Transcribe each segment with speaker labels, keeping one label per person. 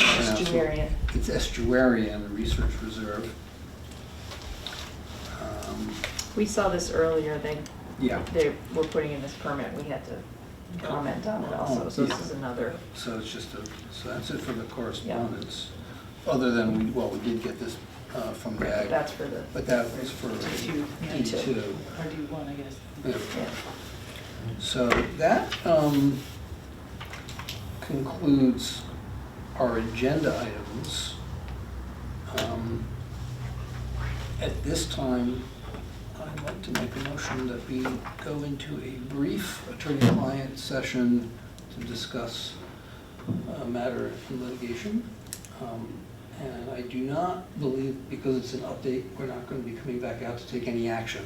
Speaker 1: Estuarian.
Speaker 2: It's estuarian, research reserve. Um,
Speaker 1: We saw this earlier, they,
Speaker 2: Yeah,
Speaker 1: they were putting in this permit, we had to comment on it also, so this is another,
Speaker 2: so it's just a, so that's it for the correspondence. Other than, we well, we did get this uh, from Dag,
Speaker 1: that's for the,
Speaker 2: but that was for
Speaker 1: Two, yeah.
Speaker 2: E2.
Speaker 3: Or do you want, I guess?
Speaker 2: Yeah.
Speaker 1: yeah.
Speaker 2: So that um, concludes our agenda items. Um, At this time, I'd like to make a motion that we go into a brief attorney-client session to discuss a matter in litigation. Um, And I do not believe, because it's an update, we're not going to be coming back out to take any action.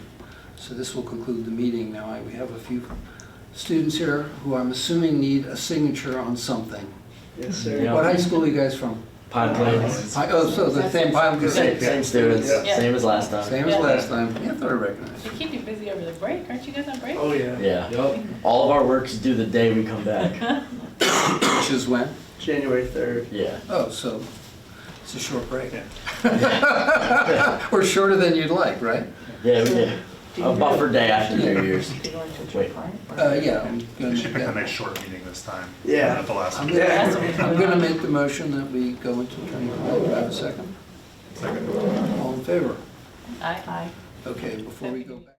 Speaker 2: So this will conclude the meeting. Now, I- we have a few students here who I'm assuming need a signature on something.
Speaker 4: Yes,
Speaker 5: Yeah.
Speaker 2: What high school are you guys from?
Speaker 5: Podlands.
Speaker 2: Hi- Oh, so the same Pine
Speaker 5: Same,
Speaker 2: Crusade,
Speaker 5: same students,
Speaker 3: Yeah.
Speaker 5: same as last time.
Speaker 2: same as last time. Yeah, I thought I recognized.
Speaker 3: They
Speaker 2: you.
Speaker 3: keep you busy over the break, aren't you guys on break?
Speaker 4: Oh, yeah.
Speaker 5: Yeah.
Speaker 4: Yup.
Speaker 5: All of our work's due the day we come back.
Speaker 2: Which is when?
Speaker 4: January 3rd.
Speaker 5: Yeah.
Speaker 2: Oh, so it's a short break.
Speaker 4: Yeah.
Speaker 2: Or shorter than you'd like, right?
Speaker 5: Yeah, we did. A buffer day after New Year's.
Speaker 1: Did you go into a
Speaker 5: Wait.
Speaker 1: trip line?
Speaker 2: Uh, yeah, I'm
Speaker 6: We
Speaker 2: gonna make
Speaker 6: should pick the
Speaker 2: that.
Speaker 6: next short meeting this time.
Speaker 4: Yeah.
Speaker 6: Not the last
Speaker 2: I'm
Speaker 6: one.
Speaker 2: gonna-
Speaker 3: That's what we
Speaker 2: I'm gonna make the motion that we go into attorney client. Do I have a second?
Speaker 6: Second.
Speaker 2: All in favor?
Speaker 3: Aye. Aye.
Speaker 2: Okay, before we go back.